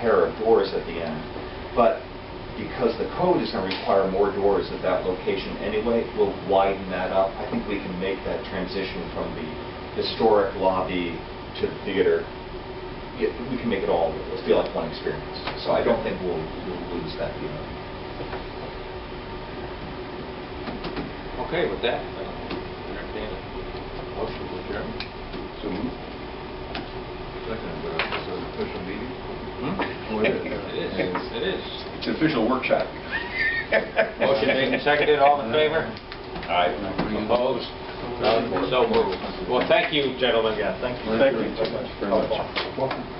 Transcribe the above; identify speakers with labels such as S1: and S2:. S1: pair of doors at the end. But because the code is going to require more doors at that location anyway, we'll widen that up. I think we can make that transition from the historic lobby to the theater. Yeah, We can make it all, it'll feel like one experience. So I don't think we'll we'll lose that either.
S2: Okay, with that, I'll entertain a motion to adjourn.
S3: So moved. Second, but it's an official meeting? Oh, it is.
S2: Hmm? It is, it is.
S3: It's an official workshop.
S2: Motion made and seconded, all in favor?
S3: Aye.
S2: Opposed? None, so moved. Well, thank you, gentlemen. Yeah, thank
S3: Thank you so much. Very much. Welcome.